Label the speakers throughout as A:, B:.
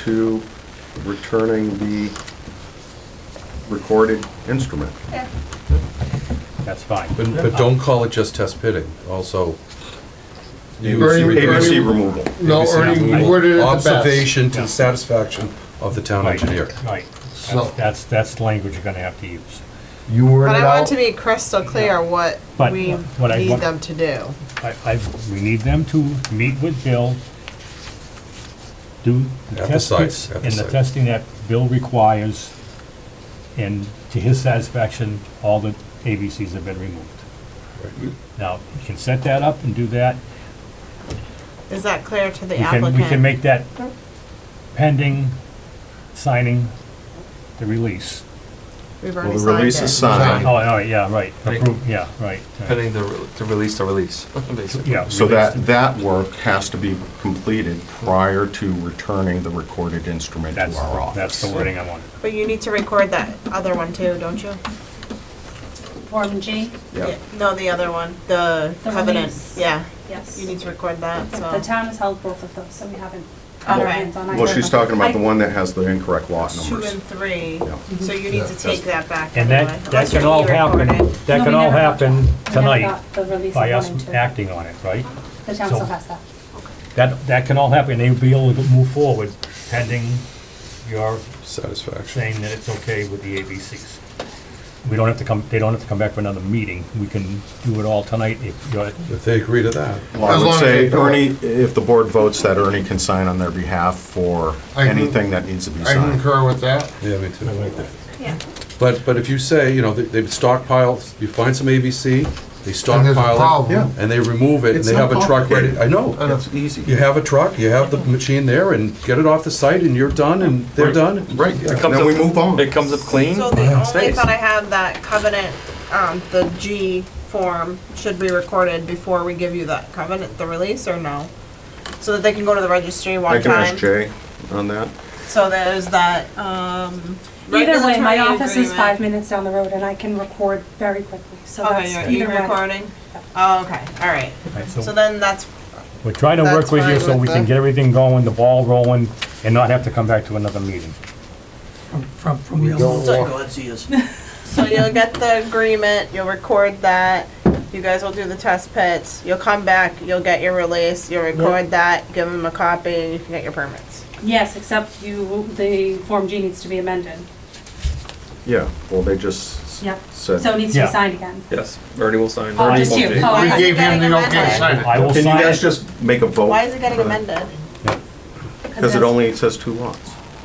A: to returning the recorded instrument.
B: Yeah.
C: That's fine.
D: But, but don't call it just test pitting, also. you-
E: Very- very-
A: ABC removal.
E: No,
D: ABC
E: Ernie, you
D: removal.
E: worded it the best.
D: Observation to
C: Yeah.
D: the satisfaction of the town
C: Right,
D: engineer.
C: Right.
E: So-
C: That's- That's, that's language you're gonna have to use.
E: You worded
B: But
E: it
B: I want
E: out.
B: it to be crystal clear what
C: But
B: we
C: what I
B: need
C: want-
B: them to do.
C: I, I, we need them to meet with Bill, do
D: At the
C: the test
D: site,
C: pits
D: at the
C: and the
D: site.
C: testing that Bill requires, and to his satisfaction, all the ABCs have been removed. Now, you can set that up and do that.
B: Is that clear to the
C: We can,
B: applicant?
C: we can make that pending signing the release.
B: We've
A: Well,
B: already
A: the
B: signed
A: release is
B: it.
A: signed.
C: Oh, all right, yeah, right,
F: Right.
C: approve, yeah, right, right,
F: Pending the, re- to release the release, basically.
C: yeah.
A: So
C: release
A: that, that work has to be completed prior to returning the recorded instrument
C: That's,
A: to our office.
C: that's the wording I wanted.
B: But you need to record that other one too, don't you?
G: Form G,
A: Yeah.
B: No, the other one, the
G: The
B: covenant,
G: release.
B: yeah,
G: yes.
B: you need to record that,
G: But The
B: so.
G: town has held both of those, so we haven't.
B: All
G: had our
B: right.
G: hands on
A: Well,
G: either
A: she's
G: of them.
A: talking about the
G: I-
A: one that has the incorrect lot
B: Two
A: numbers.
B: and three,
A: Yeah.
B: so you need to take that back
C: And
B: anyway.
C: that, that
B: unless
C: can
B: you
C: all
B: re-record
C: happen,
B: it.
C: that
G: No,
C: can
G: we
C: all
G: never got- we
C: happen
G: never
C: tonight
G: got The release of
C: by us
G: one and two.
C: acting on it, right?
G: The town
C: so-
G: still has that.
C: That, that can all happen, they'll be able to move forward pending your
D: Satisfaction.
C: saying that it's okay with the ABCs. We don't have to come, they don't have to come back for another meeting, we can do it all tonight if you're,
D: If they agree to that.
A: Well, I
E: As long
A: would
E: as
A: say,
E: they do it.
A: Ernie, if the board votes that Ernie can sign on their behalf for
E: I can-
A: anything that needs to be
E: I
A: signed.
E: concur with that.
D: Yeah, me too.
G: Yeah.
D: But, but if you say, you know, they- they stockpile, you find some ABC, they
E: And there's a
D: stockpile
E: problem.
D: it, and they remove it, and
A: It's
D: they
A: not
D: have a truck ready.
A: complicated.
D: I know.
E: I know.
D: You have a truck, you have the machine there, and get it off the site, and you're done, and they're
F: Right.
D: done.
A: Right,
F: It comes
A: then
F: up-
A: we move on.
F: It comes up clean.
B: So the only
F: stays.
B: thought I had that covenant, um, the G form should be recorded before we give you that covenant, the release, or no? So that they can go to the registry
A: I
B: one
A: can ask
B: time,
A: Jay on that.
B: so there's that, um.
G: Either way, my office is
B: regulatory
G: five
B: agreement.
G: minutes down the road and I can record very quickly, so that's
B: Okay, you're
G: either
B: you're
G: way.
B: recording? Oh, okay, all right,
C: right,
B: so
C: so
B: then that's,
C: we're trying to work
B: That's
C: with you
B: fine
C: so
B: with
C: we can
B: that.
C: get everything going, the ball rolling, and not have to come back to another meeting.
H: from, from the
E: don't
H: other.
E: want-
B: so you'll get the agreement, you'll record that, you guys will do the test pits, you'll come back, you'll get your release, you'll record that, give them a copy, and you can get your permits.
G: Yes, except you, the Form G needs to be amended.
A: Yeah, well, they just
G: Yep.
A: said.
G: So it needs to be
C: Yeah.
G: signed again.
F: Yes, Ernie will sign.
G: Oh, just you. Oh,
E: We
B: Why is it
E: gave him
B: getting
E: the okay to
B: amended?
E: sign it.
C: I will
A: Can you
C: sign
A: guys
C: it,
A: just make a vote?
B: Why is it getting
A: for that?
B: amended?
A: Because it
G: that's-
A: only says two lots.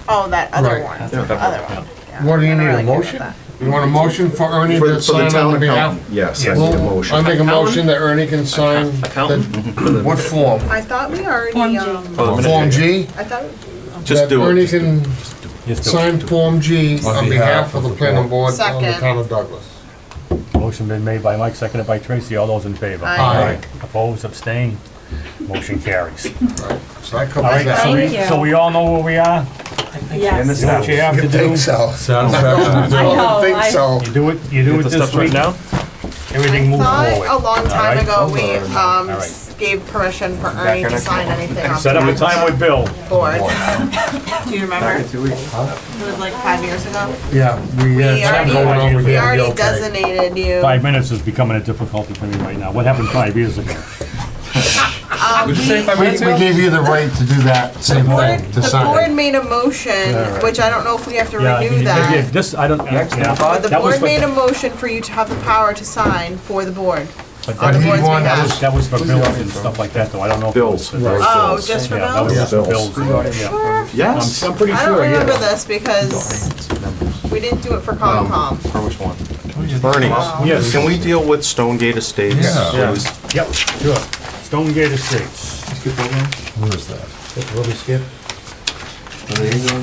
B: Oh, that other
E: Right.
B: one,
A: Yeah.
B: the other one. yeah.
E: What do you
B: I'm
E: need,
B: really
E: a
B: good with
E: motion?
B: that.
E: You want a motion for Ernie
A: For
E: to
A: for the
E: sign on
A: town
E: the behalf?
A: accountant, yes, I
C: Yes.
A: need a
E: Well, I make
A: motion.
E: a motion that Ernie can sign.
F: Accountant?
E: the- What form?
B: I thought we
G: Form
B: already,
G: G.
B: um,
F: Oh, the
E: Form
F: minute-
E: G?
B: I thought,
A: Just
E: That
A: do it.
E: Ernie
A: Just do
E: can
C: just do it.
E: sign Form G on behalf of the planning board on the
B: Second.
E: town of Douglas.
C: Motion been made by Mike, seconded by Tracy, all those in favor?
B: Aye.
E: Aye.
C: Opposed, abstained, motion carries.
E: So that
C: All right,
E: covers
C: so
E: that.
C: we, so we all know where we are,
G: Yes.
C: do what you have to
E: You think
C: do,
E: so?
D: Satisfaction.
E: I don't think
G: I-
E: so.
C: you do it, you do it
F: Get the
C: this
F: stuff right
C: week,
F: now?
C: everything
B: I
C: moves
B: thought a
C: forward.
B: long time
C: right,
B: ago, we, um,
C: All right.
B: s- gave permission for Ernie to sign anything on
C: Set up a
B: the
C: time with Bill.
B: board. Do you remember? It
F: two weeks.
B: was like five years ago.
E: Yeah, we,
B: We
E: uh,
B: already-
E: going over
B: We
E: there.
B: already designated you.
C: Five minutes is becoming a difficulty for me right now. What happened five years ago?
D: Would you say five
E: we,
D: minutes
E: we
D: ago?
E: gave you the right to do that same thing,
B: The
E: to
B: board
E: sign.
B: made a motion, which I don't know if we have to
C: Yeah, you-
B: renew
C: you-
B: that.
C: This, I don't, yeah.
B: But the
C: That
B: board
C: was for-
B: made a motion for you to have the power to sign for the board.
C: but that
E: But he
C: was-
B: boards we
E: wanted
B: have.
E: us-
C: That was for bills and stuff like that, though. I don't know. if it was-
A: Bills. those
B: Oh,
A: bills.
B: just for
C: Yeah, that was
B: bills?
C: just for
A: Bills.
C: bills. yeah.
A: Yes.
C: I'm pretty
B: I don't
C: sure, yeah.
B: remember this because we didn't do it for Concom.
F: For which one?
A: Ernie,
C: Yes.
A: can we deal with Stonegate Estates?
E: Yeah.
C: Yeah.
A: please?
C: Yep, sure. Stone Gate Estates.
E: Where is that?
H: Will we skip?
A: No,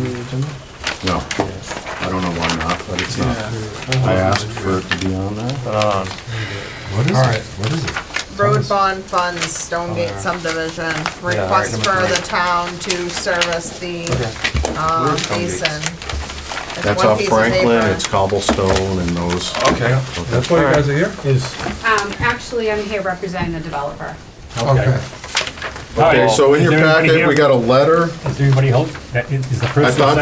A: I don't know why not, but it's not. I asked for it to be on that.
H: What is it? What is it?
B: Road bond funds, Stonegate subdivision, request for the town to service the, um, basin. It's
A: That's
B: one
A: off
B: piece of
A: Franklin,
B: paper.
A: it's cobblestone and those.
H: Okay, that's why you guys are here?
C: Is,
G: Um, actually, I'm here representing the developer.
E: Okay.
C: All right.
A: Okay, so in your
C: Is there anybody
A: packet, we
C: here-
A: got a letter
C: Does anybody hope that is is the person?
A: thought